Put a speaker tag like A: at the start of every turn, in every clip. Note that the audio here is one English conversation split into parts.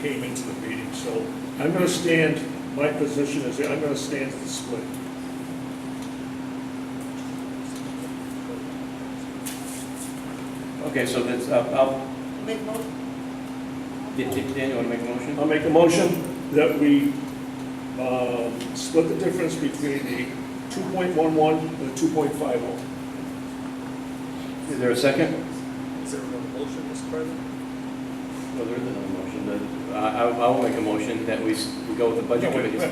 A: came into the meeting, so I'm gonna stand, my position is, I'm gonna stand at the split.
B: Okay, so that's, uh, I'll,
C: Make mo-
B: Dan- Dan, Dan, you want to make a motion?
A: I'll make a motion that we, um, split the difference between the two point one one and the two point five oh.
B: Is there a second?
D: Is there a motion, Mr. President?
B: No, there is another motion, but I, I I will make a motion that we, s- we go with the budget committee's.
A: I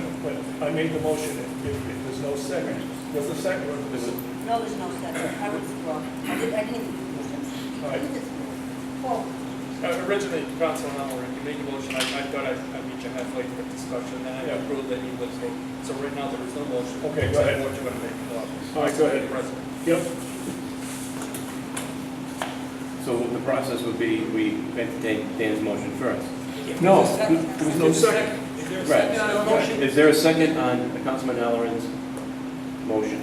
A: made the motion, if, if there's no second, there's a second.
B: There's a-
C: No, there's no second. I was wrong. I did, I didn't do motions.
A: All right.
C: Paul,
D: Uh, Originally, Councilman Allen, you made a motion, I, I thought I'd, I'd meet you halfway for discussion, and I
A: Yeah.
D: approved that you would, so, so right now, there is no motion.
A: Okay, go
D: So
A: ahead.
D: What you want to make? uh,
A: All right, go ahead.
D: President.
A: Yep,
B: So the process would be, we make Dan- Dan's motion first.
A: no,
C: there was
A: no second.
D: Is there a
B: Right.
D: second on the
B: Right.
D: motion?
B: Is there a second on Councilman Halloran's motion?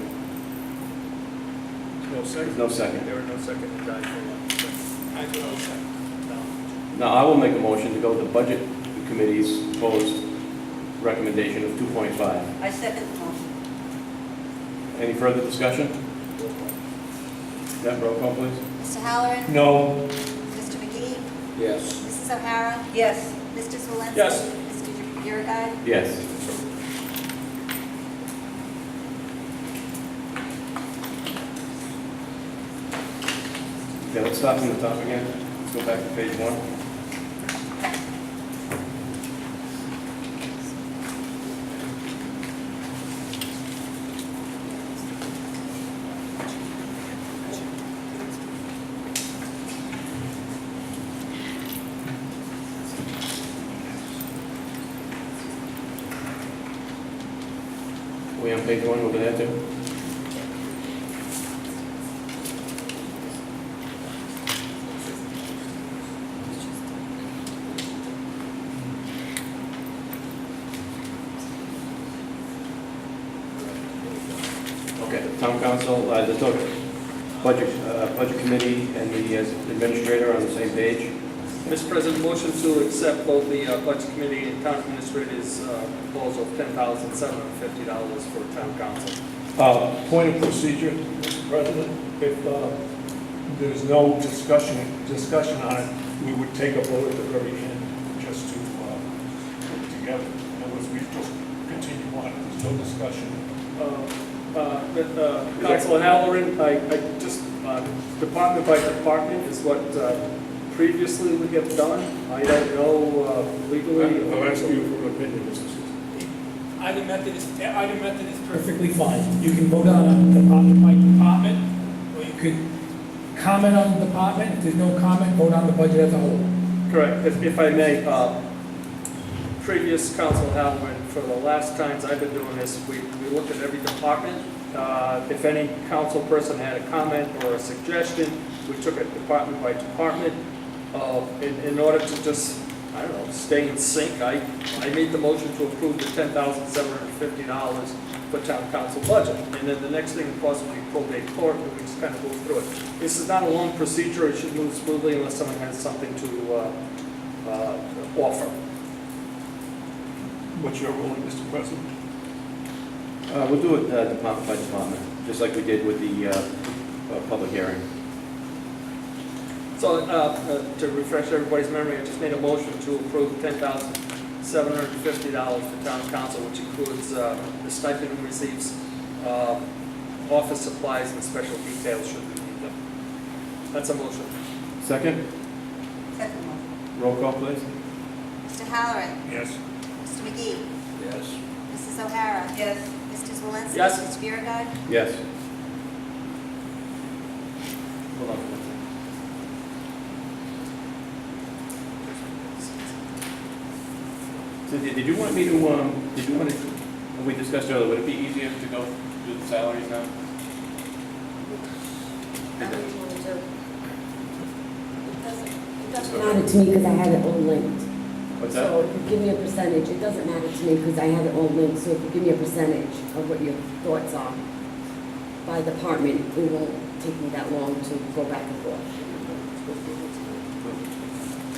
A: No
B: There's
A: second.
B: no second.
D: There are no second, it died for one second. I do not second. No.
B: Now, I will make a motion to go with the budget committee's proposed recommendation of 2.5.
C: I second the motion.
B: Any further discussion? Deb, roll call, please.
E: Mr. Halloran?
A: No,
E: Mr. McGee?
B: Yes.
E: Mrs. O'Hara?
C: Yes,
E: Mr. Swalenski?
D: Yes.
E: Mr. Biragad?
B: Yes. Okay, let's start from the top again. Let's go back to page one. We on page one over there too? Okay, town council, uh, the total budget, uh, budget committee and the uh, administrator on the same page.
D: Mr. President, motion to accept both the uh, Budget Committee and Town Administrator's uh, proposal of ten thousand seven hundred fifty dollars for Town Council.
A: uh, point of procedure, Mr. President, if, uh, there's no discussion, discussion on it, we would take a vote at the very end, just to, uh, put it together. In other words, we just continue on, there's no discussion.
D: Uh, uh, but, uh, Councilor Halloran, I, I just, uh, department by department is what uh, previously we have done. I don't know uh, legally.
A: I'll ask you for an opinion, Mr. Susan.
F: Item method is, item method is perfectly fine. You can vote on a department by department, or you could comment on the department, if there's no comment, vote on the budget as a whole.
D: Correct, if, if I may, uh, previous council Halloran, for the last times I've been doing this, we, we looked at every department. Uh, if any council person had a comment or a suggestion, we took it department by department. Uh, in, in order to just, I don't know, stay in sync, I, I made the motion to approve the ten thousand seven hundred and fifty dollars for town council budget. And then the next thing, of course, would be probate court, and we just kind of go through it. This is not a long procedure, it should move smoothly unless someone has something to, uh, uh, offer.
A: What's your ruling, Mr. President?
B: Uh, We'll do it uh, department by department, just like we did with the uh, uh, public hearing.
D: So, uh, uh, to refresh everybody's memory, I just made a motion to approve ten thousand seven hundred and fifty dollars for town council, which includes, uh, the stipend who receives, uh, office supplies and special details should we need them. That's a motion.
B: Second,
C: second motion.
B: roll call, please.
E: Mr. Halloran?
A: Yes.
E: Mr. McGee?
B: Yes.
E: Mrs. O'Hara?
C: Yes,
E: Mr. Swalenski?
D: Yes.
E: Mr. Biragad?
B: Yes.
D: Hold on. for one second.
B: So did did you want me to, um, did you want to, we discussed earlier, would it be easier to go do the salaries now?
C: I'm going to.
G: It doesn't it doesn't
B: So-
G: matter to me because I had it all linked.
B: What's
G: So
B: that?
G: if you give me a percentage, it doesn't matter to me because I had it all linked. So if you give me a percentage of what your thoughts are by department, it won't take me that long to go back and forth.